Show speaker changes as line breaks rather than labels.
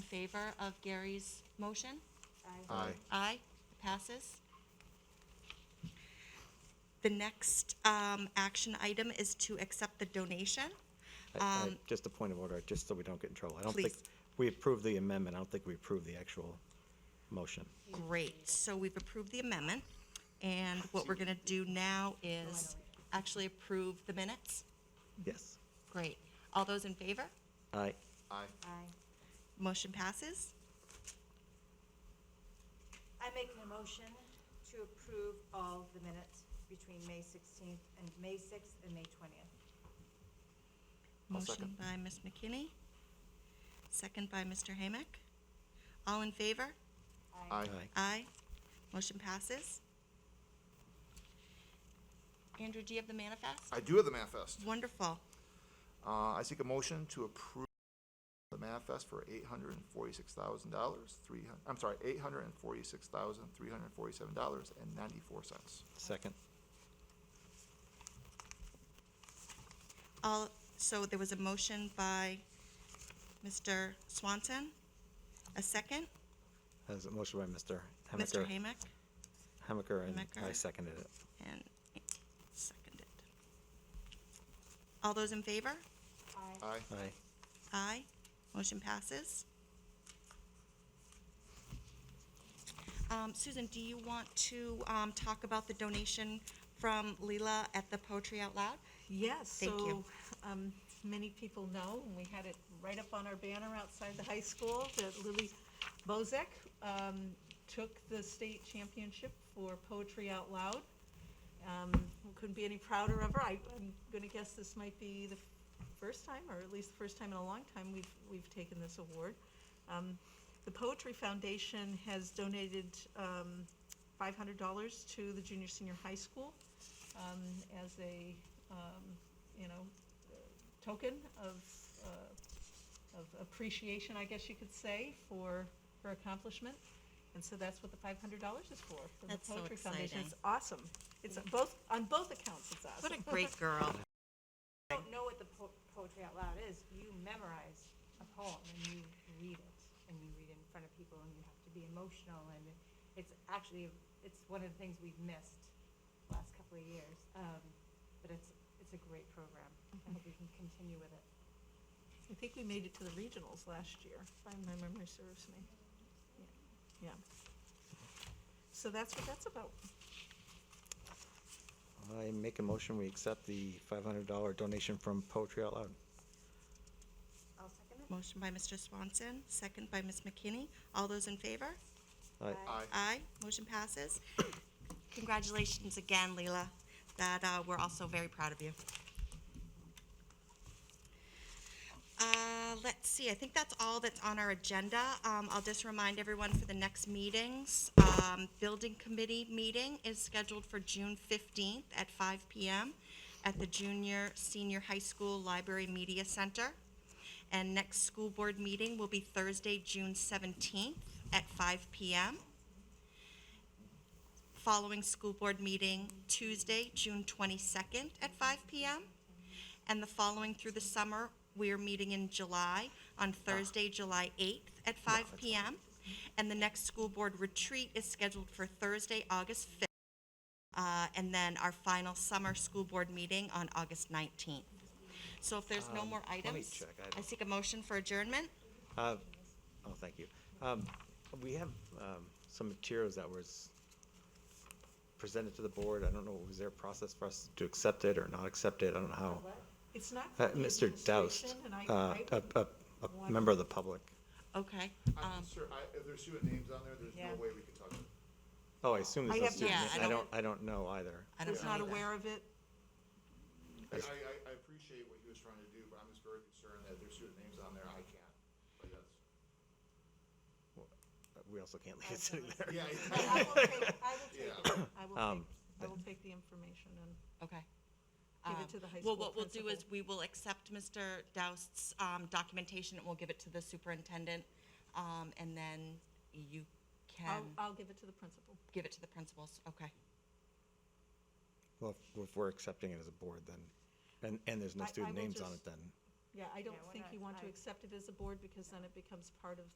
favor of Gary's motion?
Aye.
Aye, it passes. The next um, action item is to accept the donation.
I- I-
Um,
Just a point of order, just so we don't get in trouble. I don't think,
Please.
we approved the amendment, I don't think we approved the actual motion.
Great, so we've approved the amendment, and what we're going to do now is actually approve the minutes.
Yes.
Great. All those in favor?
Aye.
Aye.
Motion passes.
I make a motion to approve all the minutes between May 16th and May 6th and May 20th.
I'll second.
Motion by Ms. McKinney, second by Mr. Hamick. All in favor?
Aye.
Aye. Motion passes. Andrew, do you have the manifest?
I do have the manifest.
Wonderful.
Uh, I seek a motion to approve the manifest for eight hundred and forty-six thousand dollars, three, hun- I'm sorry, eight hundred and forty-six thousand, three hundred and forty-seven dollars and ninety-four cents.
Second.
All, so there was a motion by Mr. Swanson, a second,
Has a motion by Mr.
Mr.
Hamaker.
Hamick,
Hamaker, and I
Hamaker.
seconded it.
and seconded. All those in favor?
Aye.
Aye.
Aye. Motion passes. Um, Susan, do you want to, um, talk about the donation from Leela at the Poetry Out Loud?
Yes,
Thank you.
so, um, many people know, and we had it right up on our banner outside the high school, that Lily Bozek, um, took the state championship for Poetry Out Loud. Um, couldn't be any prouder of her. I, I'm gonna guess this might be the first time, or at least the first time in a long time, we've, we've taken this award. Um, the Poetry Foundation has donated, um, five hundred dollars to the junior, senior high school, um, as a, um, you know, token of, uh, of appreciation, I guess you could say, for her accomplishment. And so that's what the five hundred dollars is for, for the
That's so
Poetry Foundation. It's
exciting.
awesome. It's on both, on both accounts, it's awesome.
What a great girl.
I don't know what the po- poetry out loud is. You memorize a poem and you read it, and you read it in front of people, and you have to be emotional, and it's actually, it's one of the things we've missed the last couple of years. Um, But it's, it's a great program. I hope we can continue with it.
I think we made it to the regionals last year, if my memory serves me. Yeah. So that's what that's about.
I make a motion, we accept the five hundred dollar donation from Poetry Out Loud.
I'll second it.
Motion by Mr. Swanson, second by Ms. McKinney. All those in favor?
Aye.
Aye.
Aye. Motion passes. Congratulations again, Leela. That, uh, we're also very proud of you. Uh, let's see, I think that's all that's on our agenda. Um, I'll just remind everyone for the next meetings. Um, Building Committee meeting is scheduled for June fifteenth at five PM at the Junior Senior High School Library Media Center. And next school board meeting will be Thursday, June seventeenth at five PM. Following school board meeting Tuesday, June twenty-second at five PM. And the following through the summer, we are meeting in July on Thursday, July eighth at five PM. And the next school board retreat is scheduled for Thursday, August fifth. Uh, and then our final summer school board meeting on August nineteenth. So if there's no
Um,
more
let me
items,
check. I don't-
I seek a motion for adjournment.
Uh, oh, thank you. Um, we have, um, some materials that was presented to the board. I don't know, was there a process for us to accept it or not accept it? I don't know how.
It's not.
Uh,
for the
Mr. Doust,
administration, and I-
uh,
I-
a, a, a member of the public.
Okay. um,
I'm sure, I, if there's student names on there, there's
Yeah.
no way we could talk about it.
Oh, I assume there's
I
no
have-
student.
yeah,
name.
I
I
don't-
don't, I don't know either.
I don't
Was
know
not
either.
aware of it.
I, I, I- I appreciate what he was trying to do, but I'm just very concerned that if there's student names on there, I can't. But that's-
We also can't leave it sitting there.
Yeah,
I
I-
will take, I will take it. I will
Um,
take, I will take the information and
Okay.
give
Um,
it to the high
Well,
school
what we'll do is
principal.
we will accept Mr. Doust's um, documentation and we'll give it to the superintendent. um, And then you
I'll,
can
I'll give it to the principal.
give it to the principals. Okay.
Well, if- if we're accepting it as a board, then, and, and there's no
I- I
student
will
names on it,
just-
then.
Yeah, I don't
Yeah, we're
think
not-
you want to
I-
accept it as a board because then it becomes part of